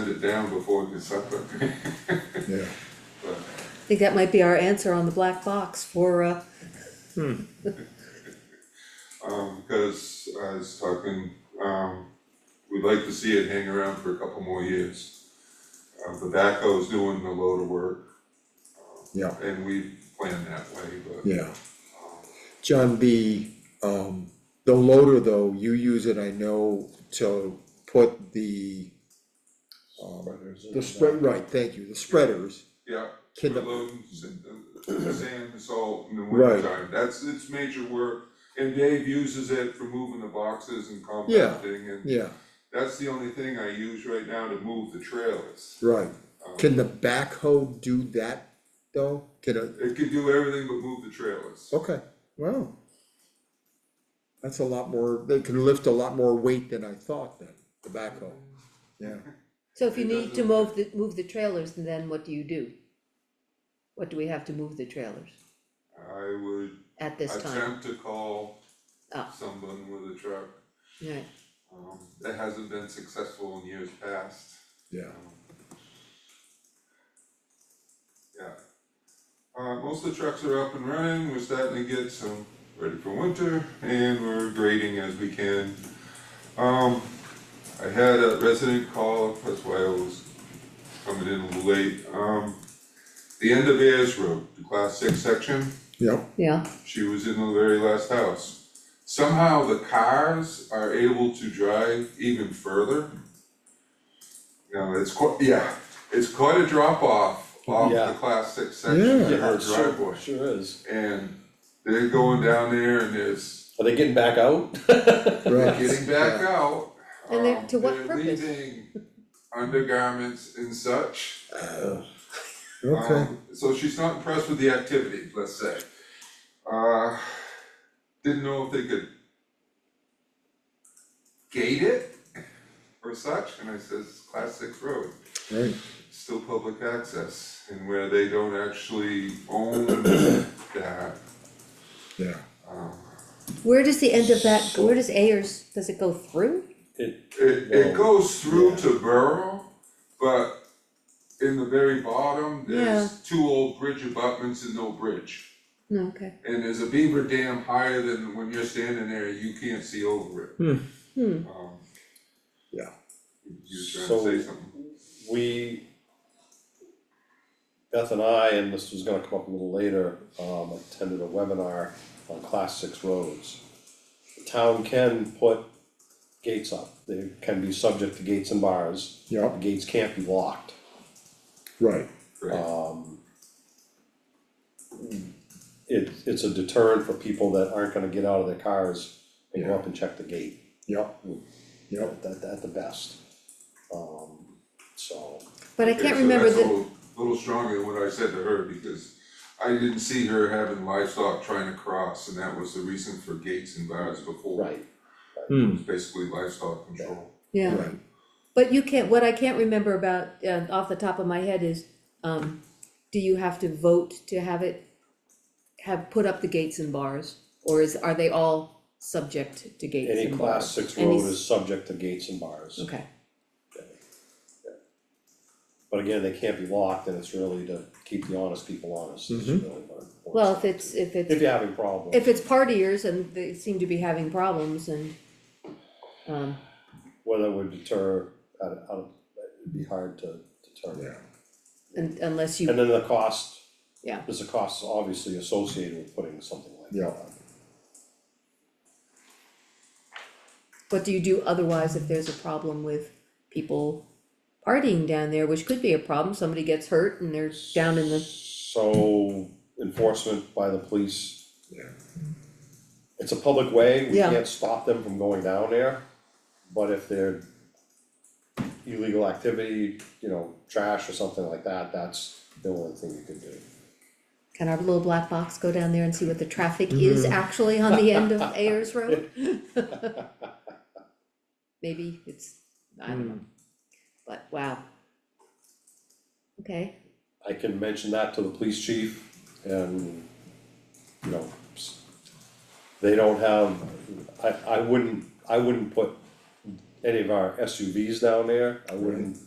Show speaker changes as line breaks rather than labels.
it down before we can suffer.
yeah.
But
I think that might be our answer on the black box for, uh,
Um, because I was talking, um, we'd like to see it hang around for a couple more years. Uh, the backhoe's doing a load of work. uh,
Yeah.
And we planned that way, but.
Yeah. John, the, um, the loader though, you use it, I know, to put the, um, the spread, right, thank you, the spreaders.
Yeah,
Can
the
the,
loads and the sand, salt in the
Right.
wintertime, that's, it's major work. And Dave uses it for moving the boxes and
Yeah.
compacting and
yeah,
that's the only thing I use right now to move the trailers.
right.
Um,
Can the backhoe do that though? Can it,
It could do everything but move the trailers.
okay, wow. That's a lot more, they can lift a lot more weight than I thought then, the backhoe, yeah.
so if you
It
need to
doesn't-
move the, move the trailers, then what do you do? What do we have to move the trailers
I would
at this time?
attempt to call
Oh.
someone with a truck,
Right,
um, that hasn't been successful in years past,
Yeah,
yeah. Uh, most of the trucks are up and running, we're starting to get some ready for winter, and we're grading as we can. Um, I had a resident call, that's why I was coming in a little late, um, the end of Ayers Road, the class six section.
yeah,
yeah,
She was in the very last house. Somehow the cars are able to drive even further. Now, it's quite, yeah, it's quite a drop off off
Yeah.
the class six section
Yeah.
to her
Yeah,
driveway.
sure, sure is.
And they're going down there and there's
Are they getting back out?
right.
getting back out.
And they're-
um,
to what purpose?
They're leaving undergarments and such.
Yeah, Okay,
Um, So she's not impressed with the activity, let's say. Uh, didn't know if they could gate it or such, and I says, class six road,
right,
still public access, and where they don't actually own that,
yeah.
um,
where does the end of that, where does Ayers, does it go through?
It,
It, it
Well,
goes through
yeah.
to Borough, but in the very bottom, there's two old bridge abutments and no bridge.
No, okay,
And there's a beaver dam higher than when you're standing there, you can't see over it.
hmm,
Um,
Yeah.
You were
So-
trying to say something?
we, Beth and I, and this was gonna come up a little later, um, attended a webinar on class six roads. The Town can put gates up, they can be subject to gates and bars,
Yeah,
the gates can't be locked.
right,
Right,
Um. It, it's a deterrent for people that aren't gonna get out of their cars and go up and check the gate.
yeah, yeah,
at, at, at the best. Um, so,
but I
Okay,
can't
so
remember
that's a
the,
little- Little stronger than what I said to her, because I didn't see her having livestock trying to cross, and that was the reason for gates and bars before.
right,
hmm,
It's Basically livestock control.
yeah.
right,
But you can't, what I can't remember about, uh, off the top of my head is, um, do you have to vote to have it, have, put up the gates and bars? Or is, are they all subject to gates
any
and
class
bars?
six
Any
road
s-
is subject to gates and bars.
Okay,
But again, they can't be locked, and it's really to keep the honest people honest, is really what it boils
well,
down
if it's,
to.
if it's,
If you're having problems.
if it's partiers and they seem to be having problems and, um,
Whether it would deter, I, don't- I, don't- it'd be hard to
yeah,
determine.
un- unless
And
you,
then the cost.
Yeah.
There's a cost obviously associated with putting something like that.
Yeah.
up.
what do you do otherwise if there's a problem with people partying down there, which could be a problem, somebody gets hurt and they're down in the,
So enforcement by the police
yeah,
it's a public way, we
Yeah.
can't stop them from going down there, but if they're illegal activity, you know, trash or something like that, that's the only thing you can do.
Can our little black box go down there and see what the traffic
Mm-hmm.
is actually on the end of Ayers Road? Maybe it's, I don't
Hmm.
know, but wow. Okay,
I can mention that to the police chief and, you know, s- they don't have, I, I wouldn't, I wouldn't put any of our SUVs down there, I wouldn't